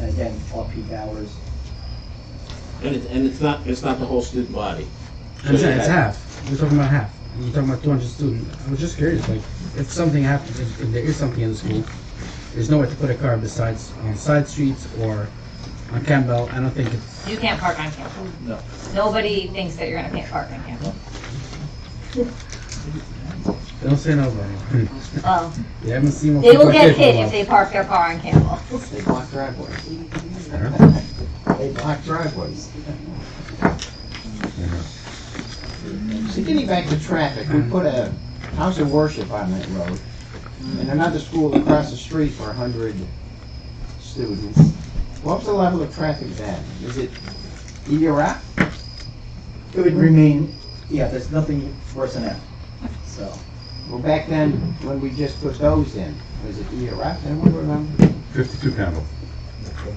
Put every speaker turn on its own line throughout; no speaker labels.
again, off-peak hours.
And it, and it's not, it's not the whole student body.
I'm saying it's
So,
half. We're talking about half. We're talking about 200 students. I was just curious, like, if something happens, if, if there is something in the school, there's nowhere to put a car besides on side streets or on Campbell. I don't think it's.
You can't park on campus.
No.
Nobody thinks that you're gonna can't park on campus.
They don't say no anymore.
Well,
they haven't seen. what
Um, they will
people
get
did for a
hit
while.
if they park their car on campus.
They block driveways. They block driveways. So getting back to traffic, we put a house of worship on that road, and another school across the street for a hundred students. What's the level of traffic then? Is it either up?
It would remain, yeah, there's nothing worse than that, so.
Well, back then, when we just put those in, was it either up, anyone remember?
52 Campbell.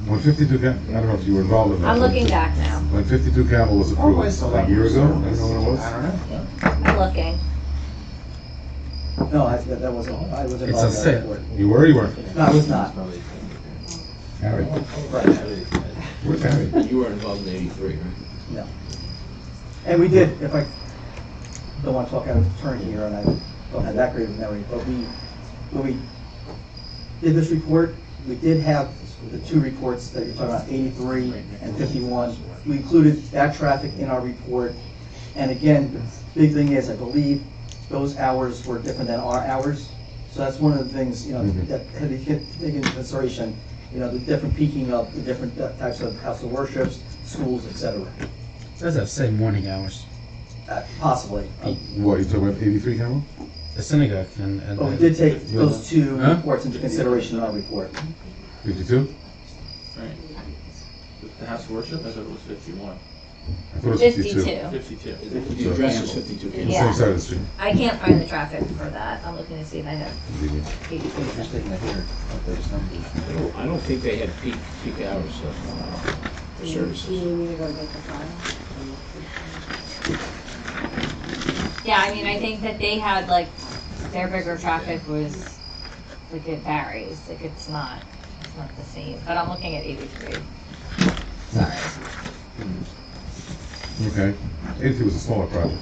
When 52 Campbell, I don't know if you were involved in that.
I'm
but
looking back now.
When 52 Campbell was
Or
approved,
was the
a
level
year
of
ago, I
service?
don't know when it
I
was.
don't know.
I'm looking.
No, I, that that wasn't, I was
It's a
involved in that
set.
report.
You were, you weren't?
No, I was not.
Harry, where's Harry?
You were involved in eighty-three, right?
And we did, if I, don't want to talk out of turn here, and I don't have that great of a memory, but we, when we did this report, we did have the two reports that you're talking about, 83 and 51. We included that traffic in our report. And again, the big thing is, I believe those hours were different than our hours. So that's one of the things, you know,
Mhm.
that had to get taken into consideration, you know, the different peaking of the different types of house of worships, schools, et cetera.
That's that same morning hours.
Uh, Possibly. Um,
What, you talking about 83 Campbell?
The synagogue and. and
But we Oh, did take those two
Huh?
reports into consideration in our report.
52?
The house of worship, I thought it was fifty-one.
I thought it was 52.
Fifty-two.
Fifty-two.
The address was fifty-two
The
Campbell.
Yeah.
same side of the street.
I can't find the traffic for that. I'm looking to see if I have eighty-three.
Interesting to hear what those numbers.
I don't, I don't think they had peak, peak hours of uh, services.
Yeah, I mean, I think that they had like, their bigger traffic was, like it varies, like it's not, it's not the same, but I'm looking at eighty-three. Sorry.
Okay. 83 was a smaller project.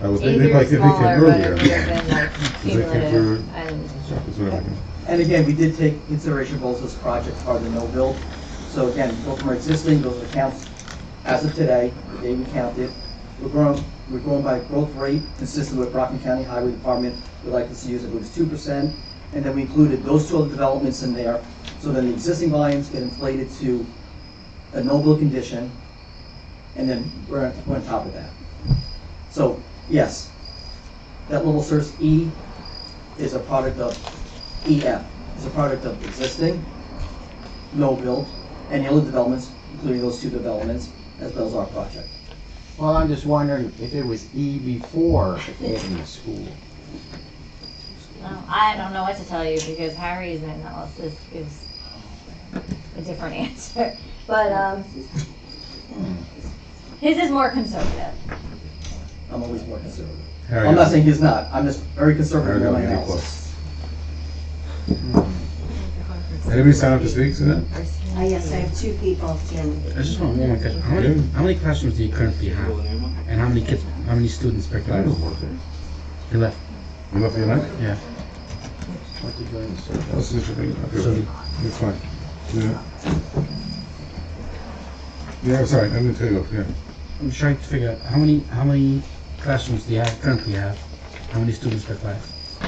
I was thinking
Eighty-three
like
is
if they came
smaller, but it
earlier.
would have been like
Is that
cumulative
cumulative?
and.
Sorry, that's what I'm looking
And again, we did take consideration both those projects are the no build. So again, both from our existing, those are counts as of today, the day we counted. We're growing, we're growing by growth rate consistent with Brockton County Highway Department. We'd like to see us, if it was two percent. And then we included those two other developments in there. So then the existing volumes get inflated to a no build condition. And then we're, on- we're on top of that. So, yes, that little source E is a product of EF E is a product of existing, no build, and the other developments, including those two developments, as well as our project.
Well, I'm just wondering if it was E before adding the school.
Well, I don't know what to tell you because Harry's analysis gives a different answer. But um,
Hmm.
his is more conservative.
I'm always more conservative.
at. Harry,
I'm not saying he's not, I'm just very conservative in
Harry, I'll
my
give you a
analysis.
plus. Anybody sign up to speak to that?
Uh, yes, I have two people, Jim.
I just want one more question. How many, how many classrooms do you currently have? And how many kids? How many students per
I
class?
don't work there.
You left.
You left the night?
Yeah.
What did you want to say?
That's the issue. Okay,
Sorry.
It's fine. Yeah. Yeah, I'm sorry, I didn't tell you, off, yeah.
I'm trying to figure out how many how many classrooms do you have currently have? How many students per class?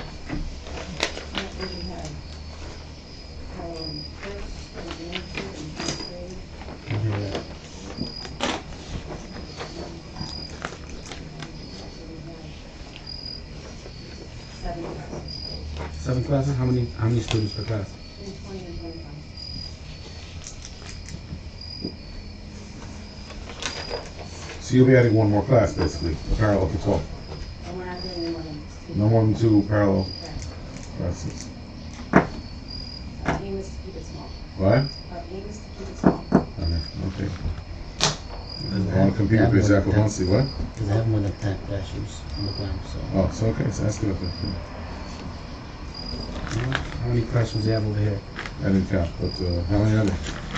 Seven classes. How many how many students per class?
So you'll be adding one more class, basically, a parallel to twelve. No more than two parallel classes.
Aim is to keep it small.
What?
Our aim is to keep it small.
Okay. I want to compete with Big Apple Muncie, what?
Because I have more than ten classrooms on the ground. So
Oh, so okay, so that's good. okay.
how many classrooms do you have over here?
I didn't count, but uh, how many are there?